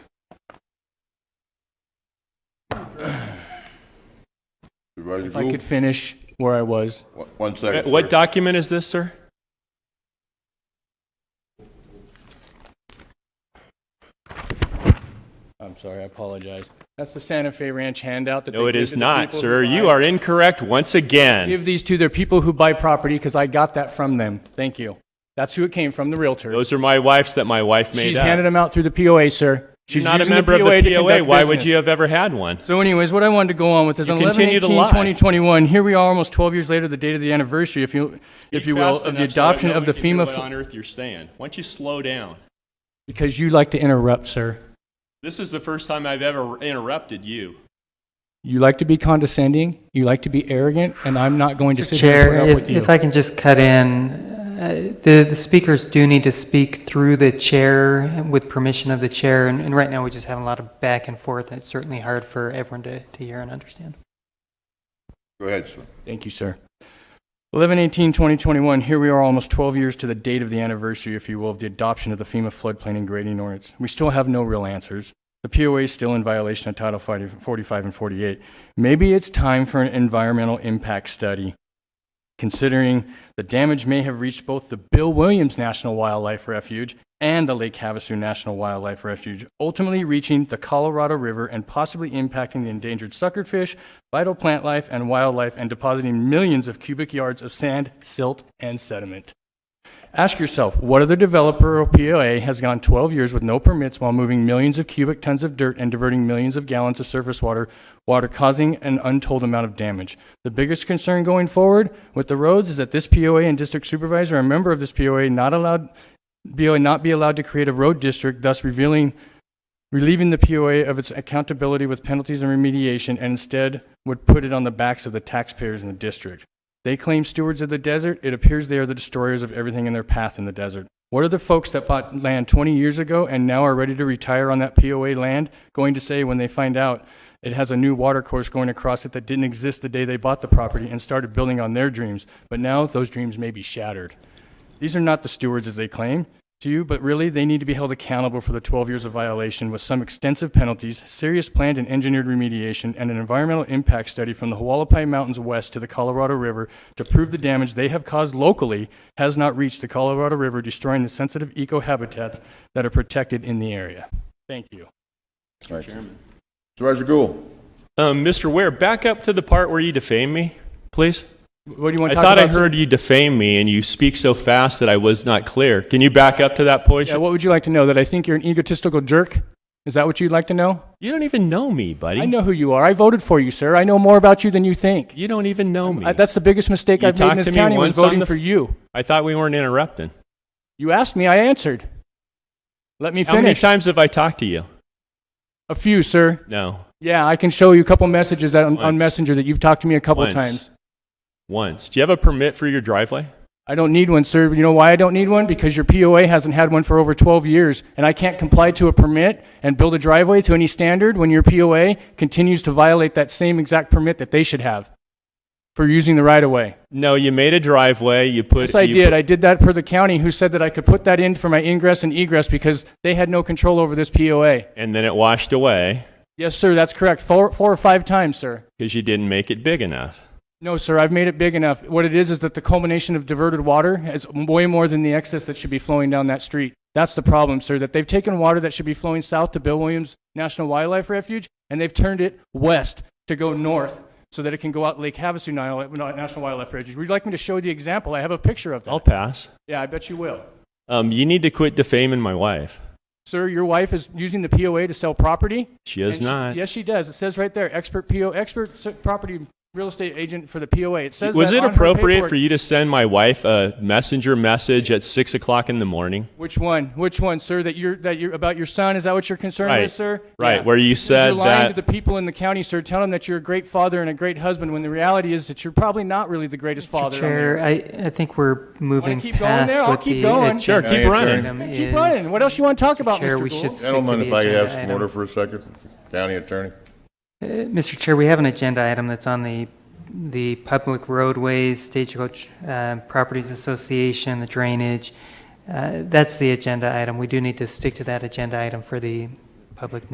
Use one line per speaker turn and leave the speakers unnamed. Ready to
If I
go?
could finish where I was.
One- One second.
Uh, What
sir.
document is this, sir?
I'm sorry, I apologize. That's the Santa Fe Ranch handout that they
No, it
give
is
to the
not,
people
sir.
who buy-
You are incorrect once again.
Give these to their people who buy property because I got that from them. Thank you. That's who it came from, the realtor.
Those are my wife's that my wife made
She's
up.
handed them out through the POA, sir.
You're
She's
not a
using
member of the
to
POA.
conduct
Why would
business.
you have ever had one?
So anyways, what I wanted to go on with is
You
on 11,
continue
18,
to lie.
2021, here we are almost 12 years later, the date of the anniversary, if you, if you will, of the adoption of the FEMA.
What
fu-
on earth you're saying? Why don't you slow down?
Because you like to interrupt, sir.
This is the first time I've ever interrupted you.
You like to be condescending, you like to be arrogant, and I'm not going to sit here
Chair,
and put up with
if,
you.
if I can just cut in, uh, the, the speakers do need to speak through the chair with permission of the chair, and, and right now we just have a lot of back and forth, and it's certainly hard for everyone to, to hear and understand.
Go ahead, sir.
Thank you, sir. 11 18 2021, here we are almost 12 years to the date of the anniversary, if you will, of the adoption of the FEMA floodplain and grading ordinance. We still have no real answers. The POA is still in violation of Title 40 45 and 48. Maybe it's time for an environmental impact study, considering the damage may have reached both the Bill Williams National Wildlife Refuge and the Lake Havasu National Wildlife Refuge, ultimately reaching the Colorado River and possibly impacting the endangered suckerfish, vital plant life, and wildlife, and depositing millions of cubic yards of sand, silt, and sediment. Ask yourself, what other developer or POA has gone 12 years with no permits while moving millions of cubic tons of dirt and diverting millions of gallons of surface water, water causing an untold amount of damage? The biggest concern going forward with the roads is that this POA and district supervisor, a member of this POA, not allowed, BOA not be allowed to create a road district, thus revealing, relieving the POA of its accountability with penalties and remediation, and instead would put it on the backs of the taxpayers in the district. They claim stewards of the desert. It appears they are the destroyers of everything in their path in the desert. What are the folks that bought land 20 years ago and now are ready to retire on that POA land going to say when they find out it has a new water course going across it that didn't exist the day they bought the property and started building on their dreams? But now those dreams may be shattered. These are not the stewards as they claim to you, but really they need to be held accountable for the 12 years of violation with some extensive penalties, serious planned and engineered remediation, and an environmental impact study from the Hualapai Mountains west to the Colorado River to prove the damage they have caused locally has not reached the Colorado River, destroying the sensitive ecohabitats that are protected in the area. Thank you.
Thank you. Supervisor Gould.
Um, Mr. Ware, back up to the part where you defame me, please.
What do you want to
I
talk about?
thought I
sir?
heard you defame me and you speak so fast that I was not clear. Can you back up to that point?
Yeah, what would you like to know? That I think you're an egotistical jerk? Is that what you'd like to know?
You don't even know me, buddy.
I know who you are. I voted for you, sir. I know more about you than you think.
You don't even know me.
I, that's the biggest mistake
You
I've made in
talked
this
to me
county was
once on
voting
the
for
f-
you.
I thought we weren't interrupting.
You asked me, I answered. Let me
How many
finish.
times have I talked to you?
a few, sir.
No,
Yeah, I can show you a couple messages that on, on
Once.
Messenger that you've talked to me a couple
Once.
times.
once. Do you have a permit for your driveway?
I don't need one, sir. You know why I don't need one? Because your POA hasn't had one for over 12 years, and I can't comply to a permit and build a driveway to any standard when your POA continues to violate that same exact permit that they should have for using the right of way.
No, you made a driveway. You put.
Yes, I
you
did.
put-
I did that for the county who said that I could put that in for my ingress and egress because they had no control over this POA.
and then it washed away
Yes, sir, that's correct. Four, four or five times, sir.
because you didn't make it big enough.
No, sir, I've made it big enough. What it is is that the culmination of diverted water is way more than the excess that should be flowing down that street. That's the problem, sir, that they've taken water that should be flowing south to Bill Williams National Wildlife Refuge and they've turned it west to go north so that it can go out Lake Havasu Nile- National Wildlife Refuge. Would you like me to show the example? I have a picture of that.
I'll pass.
Yeah, I bet you will.
Um, you need to quit defaming my wife.
Sir, your wife is using the POA to sell property?
She is
And she-
not.
Yes, she does. It says right there, expert PO, expert s- property real estate agent for the POA. It says
Was
that
it
on her
appropriate
paperwork.
for you to send my wife a messenger message at six o'clock in the morning?
Which one? Which one, sir? That you're that you're about your son? Is that what you're concerned
Right.
with, sir?
Right, where you
you're
said
lying to
that-
the people in the county, sir. Tell them that you're a great father and a great husband, when the reality is that you're probably not really the greatest
Mr.
father. on the
Chair, I, I think we're moving
keep going there?
past
I'll
what
keep
the.
going.
Sure,
agenda
keep running.
item
Hey,
uh, is.
Keep running. What else you want to talk about,
Chair,
Mr.
we
Gould?
should- Stick to
Gentlemen,
the
if I could have
agenda
some
item.
order for a second, county attorney.
Uh, Mr. Chair, we have an agenda item that's on the, the Public Roadways, Stagecoach uh, Properties Association, the drainage. Uh, That's the agenda item. We do need to stick to that agenda item for the public